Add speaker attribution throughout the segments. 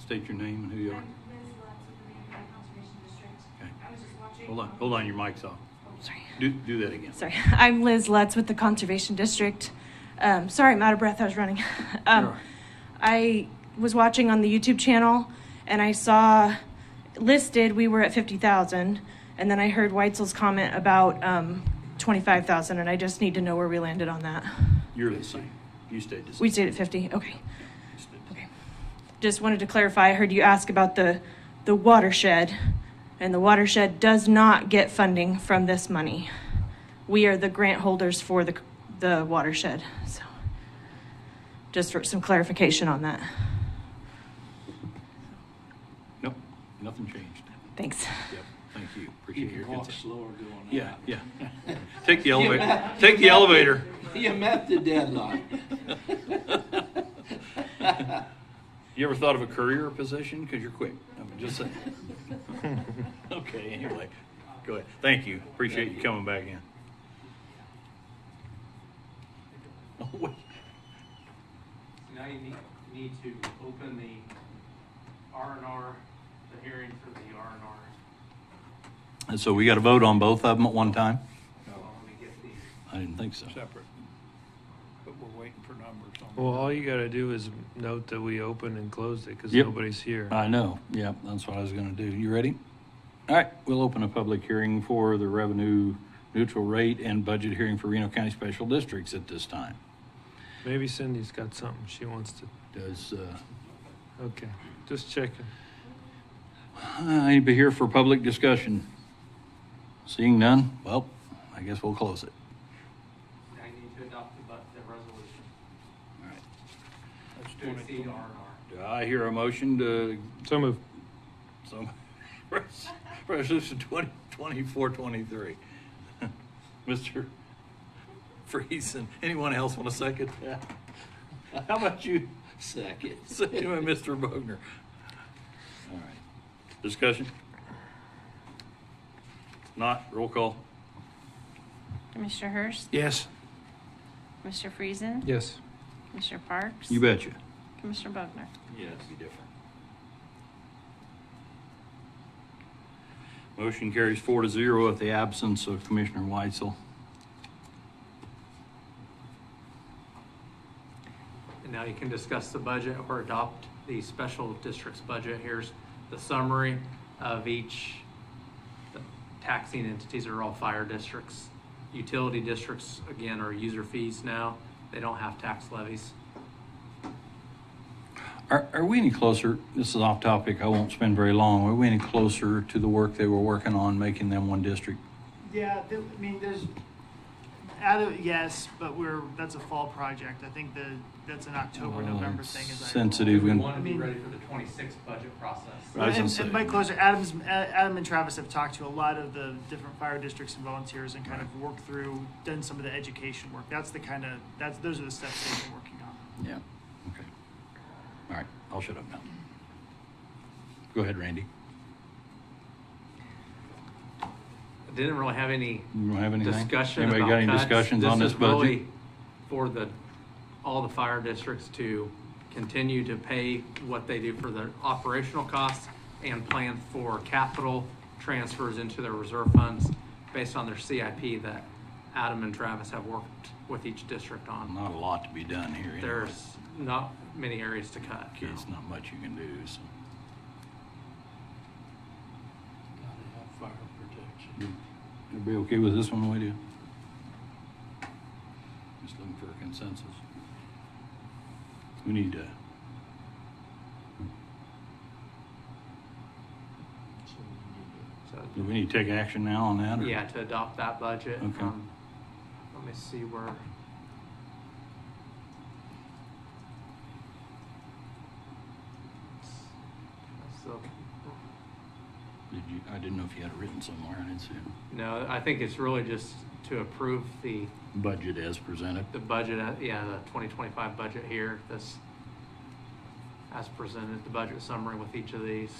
Speaker 1: State your name and who you
Speaker 2: um, I'm
Speaker 1: are.
Speaker 2: Liz Lutz with the Mankato Conservation District.
Speaker 1: Okay.
Speaker 2: I was just watching. um, oh,
Speaker 1: Hold on, hold on, your mic's off.
Speaker 2: Sorry.
Speaker 1: Do, do that again.
Speaker 2: Sorry, I'm Liz Lutz with the Conservation District. Um, sorry, I'm out of breath, I was running. Um,
Speaker 1: You're all right.
Speaker 2: I was watching on the YouTube channel and I saw listed we were at 50,000. And then I heard Weitzel's comment about um, 25,000, and I just need to know where we landed on that.
Speaker 1: You're the same. You stayed the same.
Speaker 2: We stayed at 50. Okay.
Speaker 1: You stayed the same.
Speaker 2: Okay. Just wanted to clarify, I heard you ask about the, the watershed, and the watershed does not get funding from this money. We are the grant holders for the, the watershed, so. Just for some clarification on that.
Speaker 1: Nope, nothing changed.
Speaker 2: Thanks.
Speaker 1: Yep, thank you.
Speaker 3: You
Speaker 1: Appreciate your
Speaker 3: can walk
Speaker 1: consent.
Speaker 3: slower going
Speaker 1: Yeah,
Speaker 3: out.
Speaker 1: yeah. Take the
Speaker 3: You-
Speaker 1: elevator,
Speaker 3: you
Speaker 1: take the
Speaker 3: met-
Speaker 1: elevator.
Speaker 3: You met the deadlock.
Speaker 1: You ever thought of a career position? Because you're quick. I'm just saying. Okay, anyway, go ahead. Thank you. Appreciate you coming back in. Oh, wait.
Speaker 4: Now you need, need to open the R and R, the hearing for the R and R.
Speaker 1: And so we got to vote on both of them at one time?
Speaker 4: So let me get the,
Speaker 1: I didn't think so.
Speaker 3: Separate. But we're waiting for numbers on.
Speaker 5: Well, all you gotta do is note that we opened and closed it, cause
Speaker 1: Yep.
Speaker 5: nobody's here.
Speaker 1: I know, yep, that's what I was gonna do. You ready? All right, we'll open a public hearing for the revenue neutral rate and budget hearing for Reno County Special Districts at this time.
Speaker 5: Maybe Cindy's got something she wants to,
Speaker 1: Does, uh,
Speaker 5: okay, just checking.
Speaker 1: anybody here for public discussion? Seeing none, well, I guess we'll close it.
Speaker 4: I need to adopt the, bu- the resolution
Speaker 1: All right.
Speaker 3: Let's do
Speaker 4: to
Speaker 3: it
Speaker 4: exceed R and
Speaker 3: tomorrow.
Speaker 4: R.
Speaker 1: Do I hear a motion to,
Speaker 5: So move.
Speaker 1: some, resolution twenty, twenty-four, twenty-three? Mr. Friesen, anyone else want a second?
Speaker 3: Yeah,
Speaker 1: How about you?
Speaker 3: Second.
Speaker 1: Second by Mr. Bogner. All right. Discussion? Not, roll call.
Speaker 6: Mr. Hurst?
Speaker 5: Yes.
Speaker 6: Mr. Friesen?
Speaker 5: Yes.
Speaker 6: Mr. Parks?
Speaker 1: You betcha.
Speaker 6: Commissioner Buckner?
Speaker 3: Yes.
Speaker 1: Be different. Motion carries four to zero at the absence of Commissioner Weitzel.
Speaker 4: And now you can discuss the budget or adopt the special district's budget. Here's the summary of each the taxing entities are all fire districts. Utility districts, again, are user fees now. They don't have tax levies.
Speaker 1: Are, are we any closer, this is off topic, I won't spend very long, are we any closer to the work they were working on, making them one district?
Speaker 7: Yeah, th- I mean, there's, out of, yes, but we're, that's a fall project. I think the, that's an October,
Speaker 1: Well,
Speaker 7: November
Speaker 1: it's
Speaker 7: thing. as I recall.
Speaker 1: sensitive.
Speaker 4: We
Speaker 1: If we-
Speaker 4: want to be ready for the twenty-six budget process.
Speaker 1: I was gonna
Speaker 7: And,
Speaker 1: say-
Speaker 7: and by closer, Adam's, A- Adam and Travis have talked to a lot of the different fire districts and volunteers and kind of worked through, done some of the education work. That's the kind of, that's, those are the steps they've been working on.
Speaker 1: Yeah, okay. All right, I'll shut up now. Go ahead, Randy.
Speaker 4: I Didn't really have any
Speaker 1: You don't have anything?
Speaker 4: discussion
Speaker 1: Anybody
Speaker 4: about
Speaker 1: got any
Speaker 4: cuts.
Speaker 1: discussions on this
Speaker 4: is
Speaker 1: budget?
Speaker 4: really For the, all the fire districts to continue to pay what they do for their operational costs and plan for capital transfers into their reserve funds based on their CIP that Adam and Travis have worked with each district on.
Speaker 1: Not a lot to be done here. anyway.
Speaker 4: There's not many areas to cut. no.
Speaker 1: It's not much you can do, so.
Speaker 3: Gotta have fire protection.
Speaker 1: You- You'll be okay with this one, will you? Just looking for a consensus. We need to,
Speaker 3: So we
Speaker 4: So-
Speaker 1: do we need to take action now on that? or-
Speaker 4: Yeah, to adopt that budget.
Speaker 1: Okay.
Speaker 4: Um, Let me see where. So,
Speaker 1: Did you, I didn't know if you had it written somewhere, I didn't see it.
Speaker 4: no, I think it's really just to approve the,
Speaker 1: Budget as presented.
Speaker 4: the budget, uh, yeah, the twenty twenty-five budget here, this as presented, the budget summary with each of these.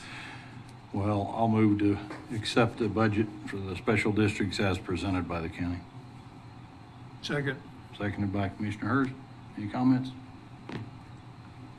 Speaker 1: Well, I'll move to accept the budget for the special districts as presented by the county.
Speaker 3: Second.
Speaker 1: Seconded by Commissioner Hurst. Any comments?